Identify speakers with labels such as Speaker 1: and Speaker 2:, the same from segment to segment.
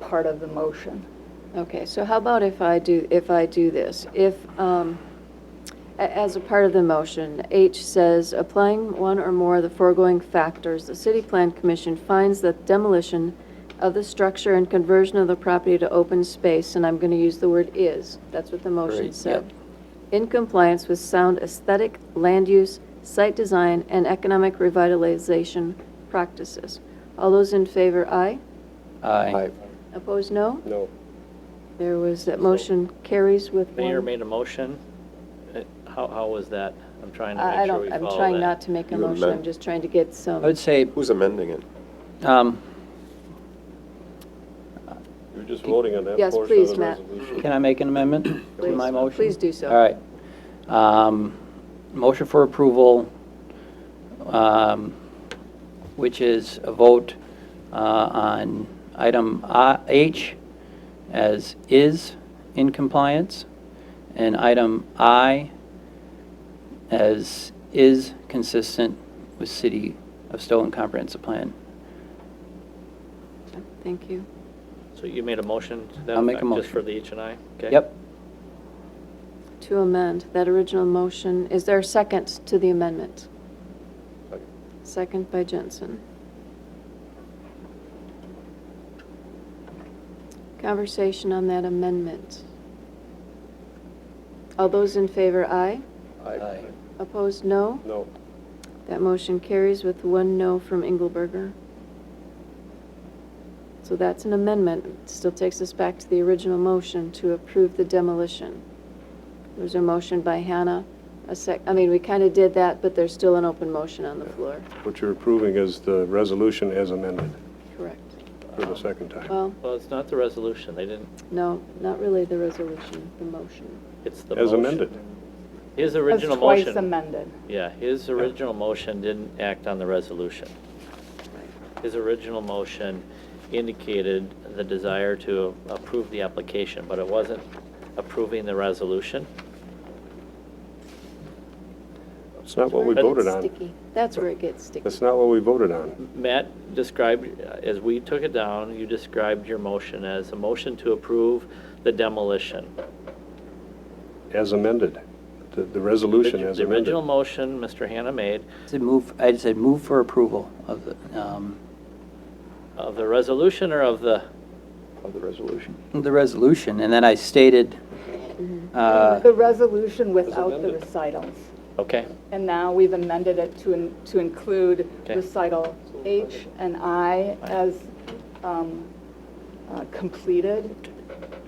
Speaker 1: part of the motion.
Speaker 2: Okay, so how about if I do, if I do this? If, um, a- as a part of the motion, H says, applying one or more of the foregoing factors, the City Plan Commission finds that demolition of the structure and conversion of the property to open space, and I'm going to use the word is, that's what the motion
Speaker 3: Right,
Speaker 2: said,
Speaker 3: yep.
Speaker 2: in compliance with sound aesthetic, land use, site design, and economic revitalization practices. All those in favor, aye?
Speaker 3: Aye.
Speaker 2: Opposed, no?
Speaker 4: No.
Speaker 2: There was, that motion carries with one.
Speaker 5: Mayor made a motion. Uh, How, how was that? I'm trying to
Speaker 2: I I
Speaker 5: make sure
Speaker 2: don't,
Speaker 5: we
Speaker 2: I'm
Speaker 5: follow
Speaker 2: trying
Speaker 5: that.
Speaker 2: not to make a
Speaker 4: You
Speaker 2: motion,
Speaker 4: amend-
Speaker 2: I'm just trying to get
Speaker 3: I
Speaker 2: some.
Speaker 3: would say,
Speaker 4: Who's amending it?
Speaker 3: um,
Speaker 4: You're just voting on that
Speaker 2: Yes,
Speaker 4: portion of
Speaker 2: please,
Speaker 4: the
Speaker 2: Matt.
Speaker 4: resolution.
Speaker 3: can I make an amendment to
Speaker 2: Please-
Speaker 3: my motion?
Speaker 2: please do so.
Speaker 3: All right. Um, Motion for approval, um, which is a vote uh, on item I- H as is in compliance, and item I as is consistent with City of Stoughton Comprehensive Plan.
Speaker 2: Thank you.
Speaker 5: So you made a motion to that
Speaker 3: I'll make a
Speaker 5: effect, Just
Speaker 3: motion.
Speaker 5: for the H and I? Okay.
Speaker 3: Yep.
Speaker 2: To amend that original motion, is there a second to the amendment? Second by Jensen. Conversation on that amendment. All those in favor, aye.
Speaker 3: Aye.
Speaker 2: Opposed, no.
Speaker 4: No.
Speaker 2: That motion carries with one no from Engelberger. So that's an amendment. It Still takes us back to the original motion to approve the demolition. There was a motion by Hannah, a sec, I mean, we kind of did that, but there's still an open motion on the floor.
Speaker 4: What you're approving is the resolution as amended
Speaker 2: Correct.
Speaker 4: for the second time.
Speaker 2: Well,
Speaker 5: Well, it's not the resolution. They didn't,
Speaker 2: no, not really the resolution, the motion.
Speaker 5: it's the motion.
Speaker 4: As amended.
Speaker 5: His original
Speaker 1: As
Speaker 5: motion.
Speaker 1: twice amended.
Speaker 5: Yeah, his original motion didn't act on the resolution. His original motion indicated the desire to approve the application, but it wasn't approving the resolution.
Speaker 4: It's not what we
Speaker 5: But-
Speaker 4: voted
Speaker 2: Sticky.
Speaker 4: on.
Speaker 2: That's where it gets sticky.
Speaker 4: That's not what we voted on.
Speaker 5: Matt described, uh, as we took it down, you described your motion as a motion to approve the demolition.
Speaker 4: As amended. The, the resolution as
Speaker 5: The
Speaker 4: amended.
Speaker 5: original motion Mr. Hannah made
Speaker 3: Said move, I said move for approval of the, um,
Speaker 5: of uh, the resolution or of the,
Speaker 3: Of the resolution. The resolution, and then I stated, uh,
Speaker 1: The resolution without the
Speaker 4: amended.
Speaker 1: recitals.
Speaker 5: okay,
Speaker 1: And now we've amended it to, in- to include
Speaker 5: Okay.
Speaker 1: recital H and I as um, uh, completed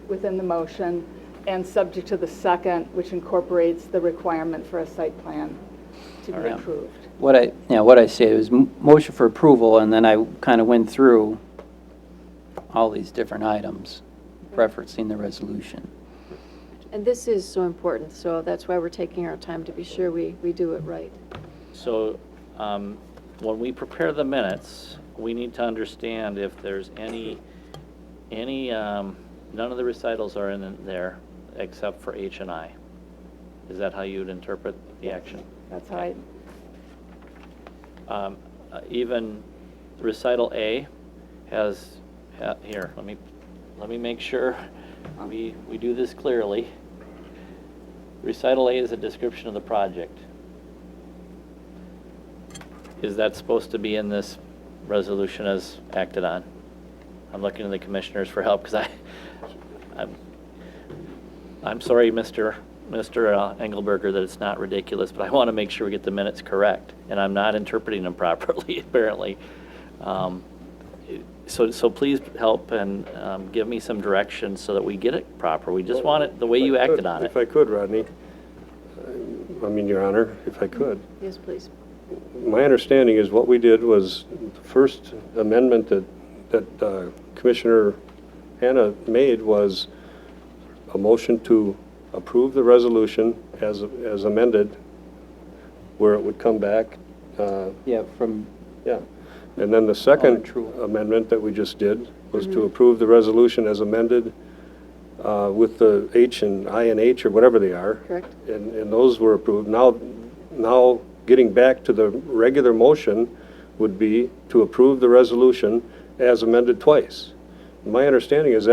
Speaker 1: within the motion and subject to the second, which incorporates the requirement for a site plan to be
Speaker 3: All right.
Speaker 1: approved.
Speaker 3: what I, yeah, what I stated was m- motion for approval, and then I kind of went through all these different items referencing the resolution.
Speaker 2: And this is so important, so that's why we're taking our time to be sure we, we do it right.
Speaker 5: so um, when we prepare the minutes, we need to understand if there's any, any, um, none of the recitals are in there except for H and I. Is that how you'd interpret the action?
Speaker 1: That's how I,
Speaker 5: Um, uh, Even recital A has, ha- here, let me, let me make sure we, we do this clearly. Recital A is a description of the project. Is that supposed to be in this resolution as acted on? I'm looking to the commissioners for help, because I, I'm, I'm sorry, Mr. Mr. uh, Engelberger, that it's not ridiculous, but I want to make sure we get the minutes correct, and I'm not interpreting them properly, apparently. Um, So, so please help and um, give me some direction so that we get it proper. We just want it the way you
Speaker 4: If I could-
Speaker 5: acted on it.
Speaker 4: If I could, Rodney, I mean, Your Honor, if I could.
Speaker 2: Yes, please.
Speaker 4: My understanding is what we did was, the first amendment that, that uh, Commissioner Hanna made was a motion to approve the resolution as, as amended, where it would come back, uh,
Speaker 3: Yeah, from,
Speaker 4: yeah. And then the second
Speaker 3: true.
Speaker 4: amendment that we just did was to approve the resolution as amended uh, with the H and I and H, or whatever they are.
Speaker 2: Correct.
Speaker 4: And, and those were approved. Now, now, getting back to the regular motion would be to approve the resolution as amended twice. my understanding is